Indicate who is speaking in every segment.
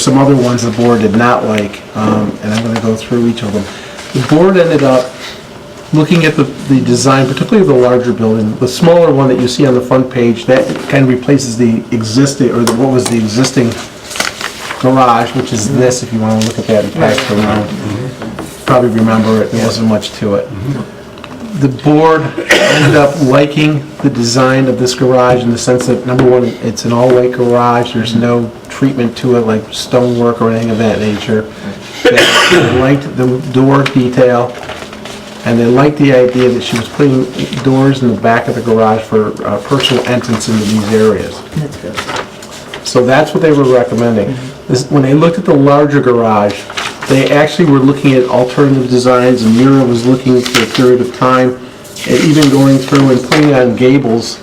Speaker 1: some other ones the board did not like, um, and I'm gonna go through each of them. The board ended up looking at the, the design, particularly the larger building, the smaller one that you see on the front page, that kind of replaces the existing, or the- what was the existing garage, which is this, if you wanna look at that and pass it around. Probably remember it, there wasn't much to it the board ended up liking the design of this garage in the sense that, number one, it's an all-white garage, there's no treatment to it like stonework or anything of that nature. They liked the door detail, and they liked the idea that she was putting doors in the back of the garage for uh, personal entrance into these areas.
Speaker 2: That's good.
Speaker 1: So that's what they were recommending. This- When they looked at the larger garage, they actually were looking at alternative designs, and Mira was looking for a period of time, and even going through and putting on gables.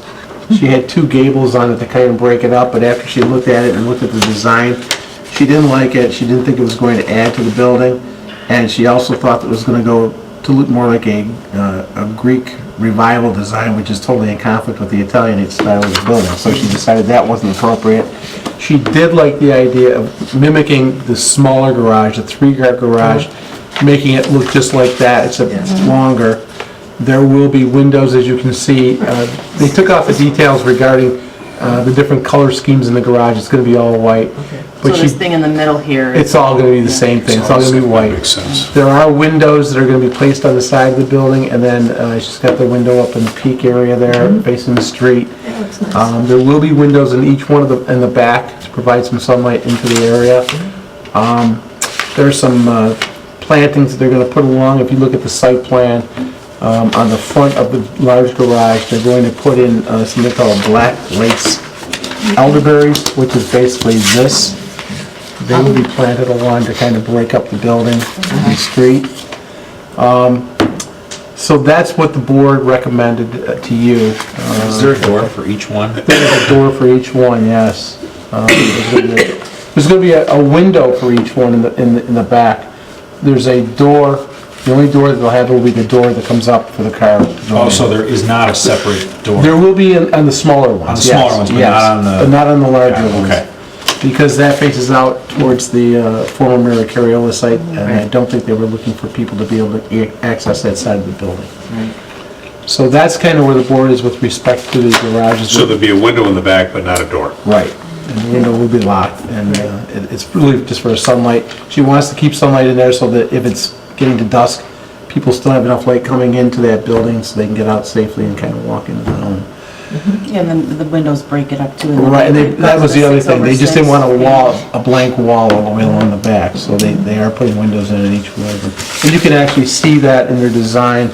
Speaker 1: She had two gables on it to kind of break it up, but after she looked at it and looked at the design, she didn't like it, she didn't think it was going to add to the building, and she also thought that it was gonna go to look more like a, uh, a Greek revival design, which is totally in conflict with the Italianate style of the building, so she decided that wasn't appropriate. She did like the idea of mimicking the smaller garage, the three-car garage, making it look just like that, except it's longer. There will be windows, as you can see. Uh, They took off the details regarding uh, the different color schemes in the garage. It's gonna be all white.
Speaker 2: So
Speaker 1: But she-
Speaker 2: this thing in the middle here
Speaker 1: It's
Speaker 2: is,
Speaker 1: all gonna be the same thing. It's all gonna be white.
Speaker 3: Makes sense.
Speaker 1: There are windows that are gonna be placed on the side of the building, and then uh, she's got the window up in the peak area there, facing the street. Um, There will be windows in each one of the, in the back to provide some sunlight into the area. Um, There's some uh, plantings that they're gonna put along, if you look at the site plan, um, on the front of the large garage, they're going to put in uh, something called black lace elderberries, which is basically this. They will be planted along to kind of break up the building, the street. Um, So that's what the board recommended uh, to you. Uh,
Speaker 4: Is there a door for each one?
Speaker 1: There's a door for each one, yes. Um, There's gonna be a- there's gonna be a, a window for each one in the, in the, in the back. There's a door, the only door that they'll have will be the door that comes up for the car.
Speaker 4: Also, there is not a separate
Speaker 1: There
Speaker 4: door.
Speaker 1: will be in- on the smaller ones.
Speaker 4: On the smaller
Speaker 1: yes,
Speaker 4: ones, but
Speaker 1: yes,
Speaker 4: not on the-
Speaker 1: But not on the larger
Speaker 4: Yeah,
Speaker 1: ones.
Speaker 4: okay.
Speaker 1: Because that faces out towards the uh, former Mary Cariola site, and I don't think they were looking for people to be able to ac- access that side of the building. So that's kind of where the board is with respect to the garages.
Speaker 3: So there'd be a window in the back, but not a door.
Speaker 1: Right. And the window will be locked, and uh, it- it's really just for sunlight. She wants to keep sunlight in there so that if it's getting to dusk, people still have enough light coming into that building so they can get out safely and kind of walk into the home.
Speaker 2: and then the windows break it up too. and
Speaker 1: Right, and they-
Speaker 2: it
Speaker 1: that
Speaker 2: goes
Speaker 1: was
Speaker 2: to
Speaker 1: the other
Speaker 2: six
Speaker 1: thing,
Speaker 2: over
Speaker 1: they just didn't
Speaker 2: six.
Speaker 1: want a wall, a blank wall all the way along the back, so they, they are putting windows in in each one of them. And you can actually see that in their design,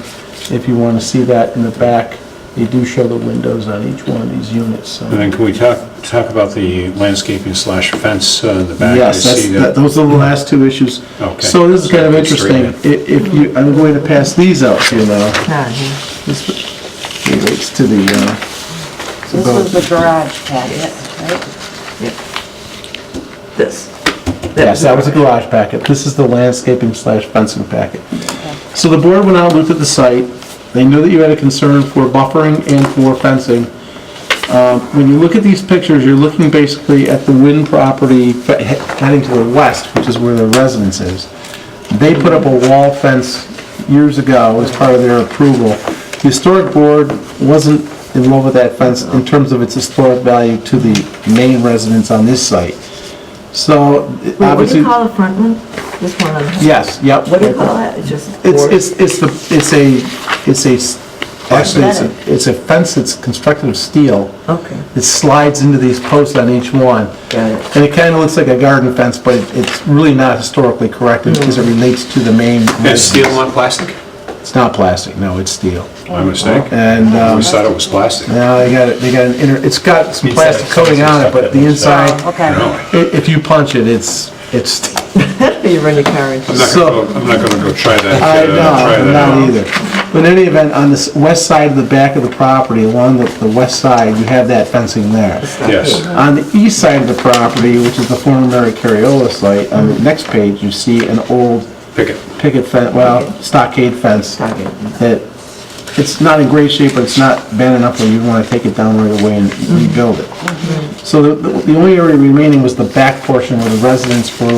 Speaker 1: if you want to see that in the back, they do show the windows on each one of these units, so.
Speaker 3: And then can we talk, talk about the landscaping slash fence uh, in the back? I
Speaker 1: Yes, that's,
Speaker 3: see
Speaker 1: that- those are the last two issues.
Speaker 3: Okay.
Speaker 1: So this is kind of
Speaker 3: That's three
Speaker 1: interesting,
Speaker 3: then.
Speaker 1: I- if you, I'm going to pass these out, to you know,
Speaker 5: Ah,
Speaker 1: this relates to the, uh,
Speaker 2: So This was the garage packet, right?
Speaker 5: yeah. This.
Speaker 1: Yes, that was a garage packet. This is the landscaping slash fencing packet. So the board went out, looked at the site. They knew that you had a concern for buffering and for fencing. Um, When you look at these pictures, you're looking basically at the Wynn property fe- he- heading to the west, which is where their residence is. They put up a wall fence years ago as part of their approval. The historic board wasn't in love with that fence in terms of its historic value to the main residence on this site. So
Speaker 5: Wait, What do
Speaker 1: obviously,
Speaker 5: you call the front one? This one on the...
Speaker 1: yes, yep.
Speaker 5: What do you call it? It's just... board?
Speaker 1: It's, it's, it's the, it's a, it's a, s- actually, it's
Speaker 2: Aesthetic.
Speaker 1: a, it's a fence that's constructed of steel.
Speaker 5: Okay.
Speaker 1: It slides into these posts on each one.
Speaker 5: Got it.
Speaker 1: And it kind of looks like a garden fence, but it- it's really not historically correct because it relates to the main.
Speaker 3: Is steel
Speaker 1: residence.
Speaker 3: not plastic?
Speaker 1: It's not plastic, no, it's steel.
Speaker 4: Oh.
Speaker 3: My mistake. I
Speaker 1: And, um,
Speaker 3: always thought it was plastic.
Speaker 1: now they got, it. they got an inner, it's got some
Speaker 4: Inside,
Speaker 1: plastic coating on it, but the inside,
Speaker 2: Oh, okay.
Speaker 3: No,
Speaker 1: i- if you punch it, it's, it's,
Speaker 5: You run your car into...
Speaker 3: I'm not
Speaker 1: So-
Speaker 3: gonna go, I'm not gonna go try that.
Speaker 1: I
Speaker 3: uh, try
Speaker 1: know,
Speaker 3: that out.
Speaker 1: not either. But in any event, on the s- west side of the back of the property, along the, the west side, you have that fencing there.
Speaker 3: Yes,
Speaker 1: On the east side of the property, which is the former Mary Cariola site, on the next page, you see an old
Speaker 3: pick it.
Speaker 1: picket fence, well, stockade fence.
Speaker 5: Stockade.
Speaker 1: That, it's not in great shape, but it's not bad enough where you want to take it down right away and rebuild it. So the, the only area remaining was the back portion where the residents were